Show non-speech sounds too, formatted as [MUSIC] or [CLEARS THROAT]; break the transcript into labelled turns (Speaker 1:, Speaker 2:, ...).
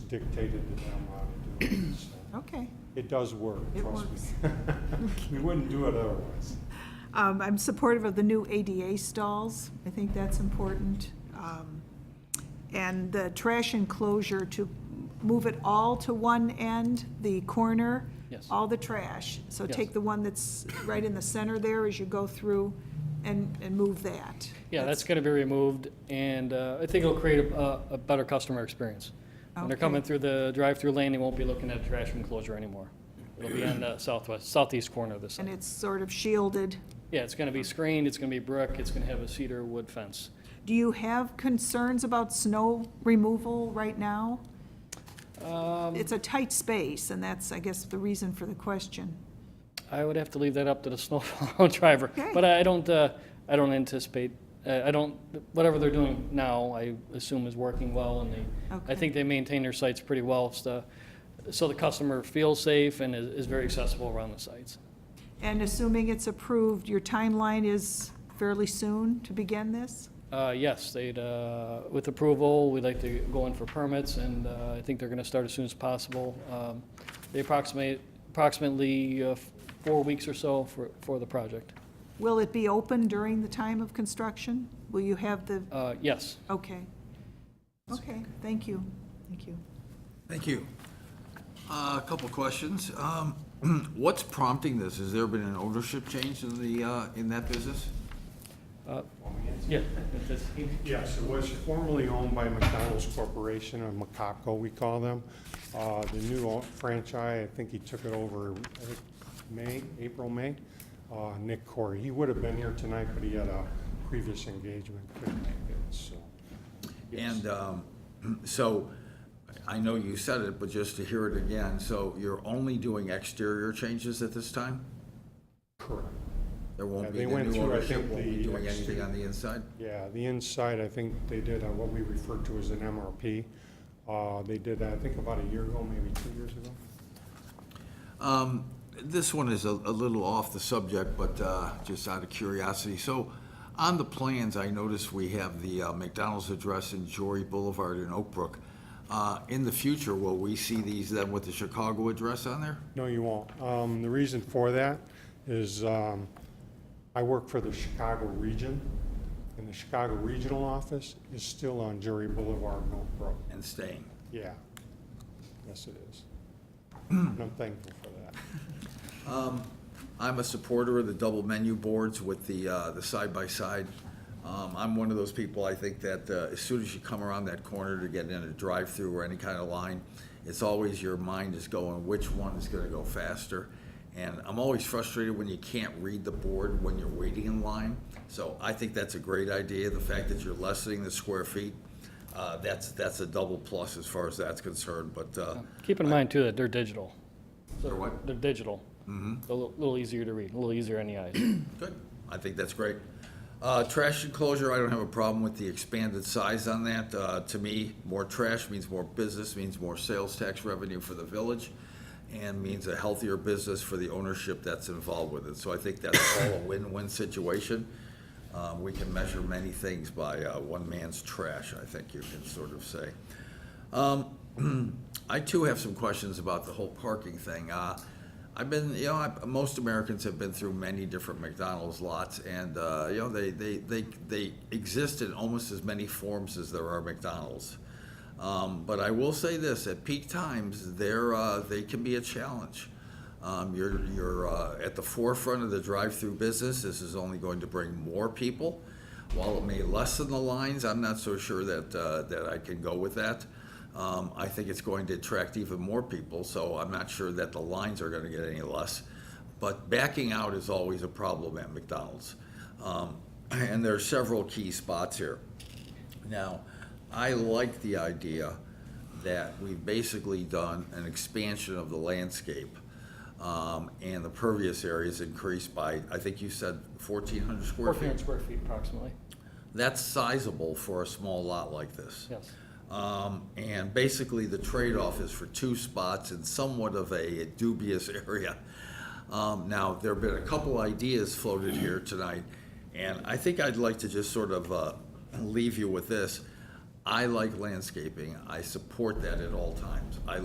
Speaker 1: dictated that I'm allowed to do
Speaker 2: [CLEARS THROAT]
Speaker 1: it. so.
Speaker 2: Okay.
Speaker 1: It does work,
Speaker 2: It
Speaker 1: trust [LAUGHS]
Speaker 2: works.
Speaker 1: me. We wouldn't do it otherwise.
Speaker 2: Um, I'm supportive of the new ADA stalls. I think that's important. Um, And the trash enclosure to move it all to one end, the corner.
Speaker 3: Yes.
Speaker 2: All the trash. So
Speaker 3: Yes.
Speaker 2: take the one that's right in the center there as you go through and, and move that.
Speaker 3: Yeah, that's going to be removed, and uh, I think it'll create a, a better customer experience. When they're
Speaker 2: Okay.
Speaker 3: coming through the drive-through lane, they won't be looking at a trash enclosure anymore. It'll be on the southwest, southeast corner of the
Speaker 2: And
Speaker 3: site.
Speaker 2: it's sort of shielded.
Speaker 3: Yeah, it's going to be screened, it's going to be brick, it's going to have a cedar wood fence.
Speaker 2: Do you have concerns about snow removal right now?
Speaker 3: Um,
Speaker 2: It's a tight space, and that's, I guess, the reason for the question.
Speaker 3: I would have to leave that up to the [LAUGHS] snowplow driver,
Speaker 2: Okay.
Speaker 3: but I don't, uh, I don't anticipate, uh, I I don't, whatever they're doing now, I assume is working well, and they,
Speaker 2: Okay.
Speaker 3: I think they maintain their sites pretty well, so, so the customer feels safe and is is very accessible around the sites.
Speaker 2: And assuming it's approved, your timeline is fairly soon to begin this?
Speaker 3: Uh, Yes, they'd, uh, with approval, we'd like to go in for permits, and uh, I think they're going to start as soon as possible. Um, They approximate, approximately uh, f- four weeks or so for, for the project.
Speaker 2: Will it be open during the time of construction? Will you have the,
Speaker 3: Uh, Yes,
Speaker 2: okay. Okay, thank you, thank you.
Speaker 4: Thank you. Uh, A couple questions. Um, [CLEARS THROAT] What's prompting this? Has there been an ownership change in the, uh, in that business?
Speaker 1: Want me to answer?
Speaker 3: yeah.
Speaker 1: Yes, it was formerly owned by McDonald's Corporation, or McCopco, we call them. Uh, The new o- franchise, I think he took it over, I think, May, April, May, Uh, Nick Corey. He would have been here tonight, but he had a previous engagement, couldn't make it, so. yes.
Speaker 4: And um, [CLEARS THROAT] so, I know you said it, but just to hear it again, so you're only doing exterior changes at this time?
Speaker 1: Correct.
Speaker 4: There
Speaker 1: Yeah,
Speaker 4: won't be,
Speaker 1: they
Speaker 4: the
Speaker 1: went
Speaker 4: new
Speaker 1: through, I
Speaker 4: ownership
Speaker 1: think,
Speaker 4: won't be
Speaker 1: the
Speaker 4: doing anything
Speaker 1: exterior-
Speaker 4: on the inside?
Speaker 1: Yeah, the inside, I think they did on what we refer to as an MRP. Uh, They did that, I think, about a year ago, maybe two years ago.
Speaker 4: Um, This one is a a little off the subject, but uh, just out of curiosity. So on the plans, I noticed we have the uh, McDonald's address in Jory Boulevard in Oak Brook. Uh, In the future, will we see these then with the Chicago address on there?
Speaker 1: No, you won't. Um, The reason for that is um, I work for the Chicago region, and the Chicago regional office is still on Jury Boulevard, in Oak Brook.
Speaker 4: And staying.
Speaker 1: Yeah. Yes, it is. [CLEARS THROAT] And I'm thankful for that.
Speaker 4: I'm a supporter of the double menu boards with the, uh, the side-by-side. Um, I'm one of those people, I think that, uh, as soon as you come around that corner to get in a drive-through or any kind of line, it's always your mind is going, which one is gonna go faster? And I'm always frustrated when you can't read the board when you're waiting in line. So I think that's a great idea, the fact that you're lessening the square feet, uh, that's, that's a double plus as far as that's concerned, but, uh,
Speaker 3: Keep in mind too that they're digital.
Speaker 4: They're what?
Speaker 3: They're digital. Mm-hmm. A little little easier to read, a little easier on the eyes.
Speaker 4: Good, I think that's great. Uh, Trash enclosure, I don't have a problem with the expanded size on that. Uh, To me, more trash means more business, means more sales tax revenue for the village, and means a healthier business for the ownership that's involved with it. So I think that's all a win-win situation. Uh, We can measure many things by uh, one man's trash, I think you can sort of say. Um, I too have some questions about the whole parking thing. Uh, I've been, you know, I, most Americans have been through many different McDonald's lots, and uh, you know, they, they, they, they exist in almost as many forms as there are McDonald's. Um, but I will say this: at peak times, they're, uh, they can be a challenge. Um, you're you're uh, at the forefront of the drive-through business. This is only going to bring more people. While it may lessen the lines, I'm not so sure that uh, that I can go with that. Um, I think it's going to attract even more people, so I'm not sure that the lines are going to get any less. But backing out is always a problem at McDonald's, um, [CLEARS THROAT] and there are several key spots here. Now, I like the idea that we've basically done an expansion of the landscape. Um, and the pervious area is increased by, I think you said fourteen hundred square
Speaker 3: Fourteen hundred
Speaker 4: feet.
Speaker 3: square feet approximately,
Speaker 4: That's sizable for a small lot like this.
Speaker 3: yes.
Speaker 4: Um, and basically, the trade-off is for two spots in somewhat of a dubious [LAUGHS] area. Um, now, there have been a couple ideas floated here tonight, and I think I'd like to just sort of, uh, leave you with this. I like landscaping. I support that at all times. I